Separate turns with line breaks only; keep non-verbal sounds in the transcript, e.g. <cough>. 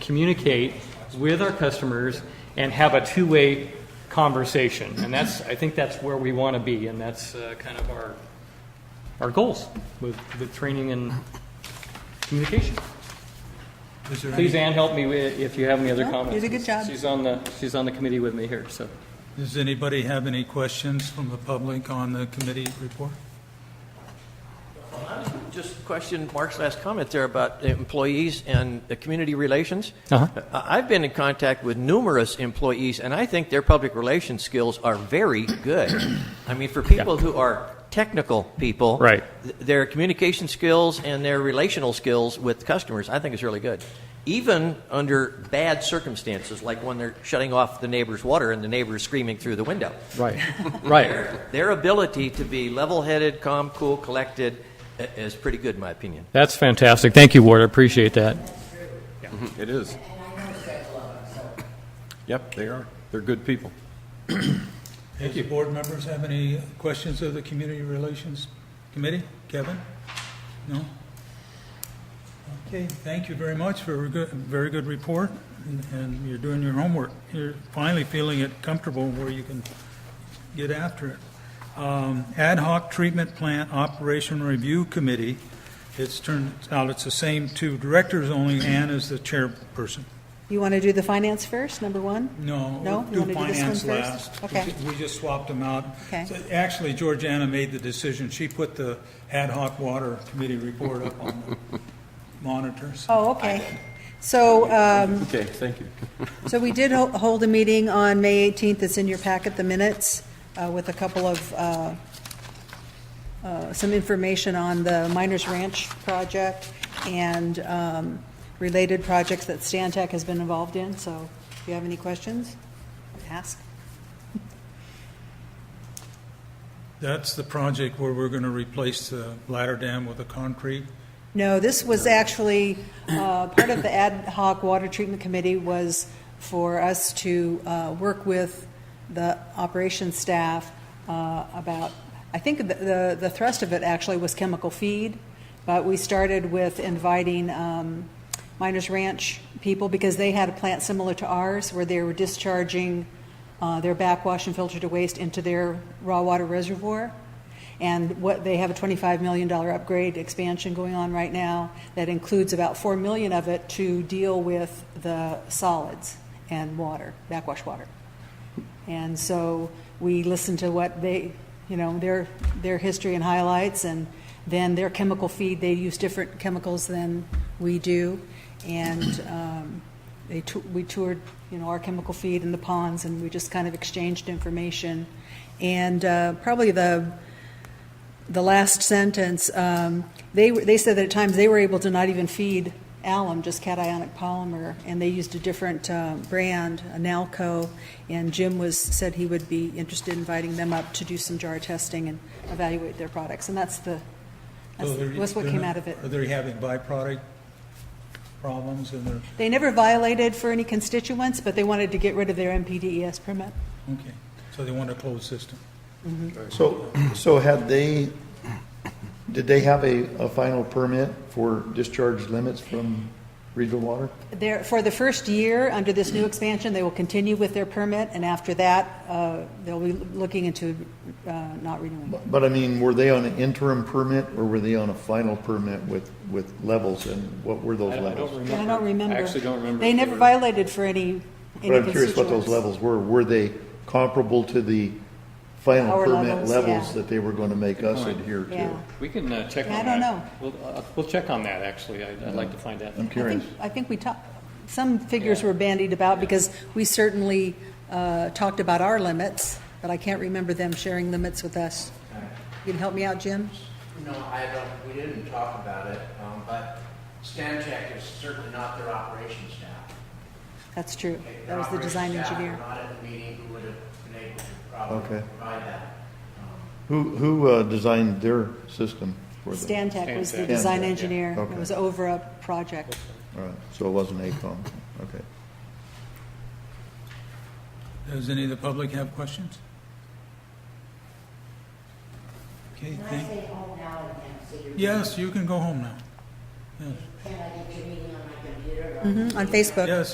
communicate with our customers and have a two-way conversation. And that's, I think that's where we want to be, and that's uh, kind of our, our goals with, with training and communication.
Is there
Please,
any,
Ann, help me wi- if you have any other
No,
comments.
you did a good job.
She's on the, she's on the committee with me here, so.
does anybody have any questions from the public on the committee report?
Just question Mark's last comment there about employees and the community relations.
Uh-huh.
I- I've been in contact with numerous employees, and I think their public relations skills are very good.
<clears throat>
I mean, for people who are technical people,
Right.
th- their communication skills and their relational skills with customers, I think is really good. Even under bad circumstances, like when they're shutting off the neighbor's water and the neighbor's screaming through the window
Right, <laughs> right.
their ability to be level-headed, calm, cool, collected i- is pretty good, in my opinion.
That's fantastic. Thank you, Ward, I appreciate that.
It is. <coughs> Yep, they are. They're good people.
Does the board members have any questions of the community relations committee? Kevin? No? Okay, thank you very much for a good, very good report, and- and you're doing your homework. You're finally feeling it comfortable where you can get after it. Um, Ad hoc Treatment Plant Operation Review Committee, it's turned out it's the same two directors, only Ann is the chairperson.
You want to do the finance first, number one?
No.
No? You
do
wanna do this
finance
one
last.
first? Okay.
We just swapped them out.
Okay.
So Actually, Georgiana made the decision. She put the ad hoc water committee report up on the
<laughs>
monitors.
Oh, okay. So, um,
Okay, thank you.
so we did ho- hold a meeting on May 18th, it's in your packet, the minutes, uh, with a couple of, uh, uh, some information on the Miners Ranch project and um, related projects that Stan Tech has been involved in, so if you have any questions, ask.
That's the project where we're going to replace the bladder dam with a concrete.
No, this was actually, uh, part of the ad hoc water treatment committee was for us to uh, work with the operations staff uh, about, I think the- the the thrust of it actually was chemical feed, but we started with inviting um, Miners Ranch people because they had a plant similar to ours where they were discharging uh, their backwash and filter to waste into their raw water reservoir. And what, they have a $25 million upgrade expansion going on right now that includes about 4 million of it to deal with the solids and water, backwash water. And so we listened to what they, you know, their, their history and highlights, and then their chemical feed, they use different chemicals than we do. And um, they, tou- we toured, you know, our chemical feed in the ponds, and we just kind of exchanged information. And uh, probably the, the last sentence, um, they, were- they said that at times they were able to not even feed alum, just cationic polymer, and they used a different uh, brand, Nalco, and Jim was, said he would be interested in inviting them up to do some jar testing and evaluate their products, and that's the, that's
So they're-
that's what
they're
came
not-
out of it.
Are they having byproduct problems and they're,
They never violated for any constituents, but they wanted to get rid of their MPDES E permit.
okay, so they want a closed system.
So, so had they, did they have a, a final permit for discharge limits from regional water?
There, for the first year, under this new expansion, they will continue with their permit, and after that, uh, they'll be looking into uh, not renewing.
But I mean, were they on an interim permit or were they on a final permit with, with levels and what were those levels?
I don't remember.
I actually don't remember.
They
if
never
were-
violated for any, any
But I'm curious what those
constituents.
levels were. Were they comparable to the final
Our
permit
levels,
levels
yeah.
that they were going to make us
point.
adhere to?
Yeah.
We can uh, check on
Yeah, I
that.
don't know.
We'll, uh, we'll check on that, actually. I'd I'd like to find out.
I'm
I think,
curious.
I think we talked, some figures were bandied about, because we certainly uh, talked about our limits, but I can't remember them sharing limits with us. You can help me out, Jim?
No, I don't, we didn't talk about it, um, but Stantec is certainly not their operations staff.
That's true.
Okay,
That
their
was the
operations
design
staff
engineer.
were Not at the meeting, who would have been able to probably
Okay.
provide that.
Who, who uh, designed their system for them?
Stan Tech was the
Stantec.
design
Stantec, yeah.
engineer. It
Okay.
was over a project.
All right, so it wasn't ACOM, okay.
Does any of the public have questions? Okay,
Can I
thank,
stay home now and then, so you're.
yes, you can go home now. Can I get your meeting on my computer? or-
Mhm, on Facebook.
Yes,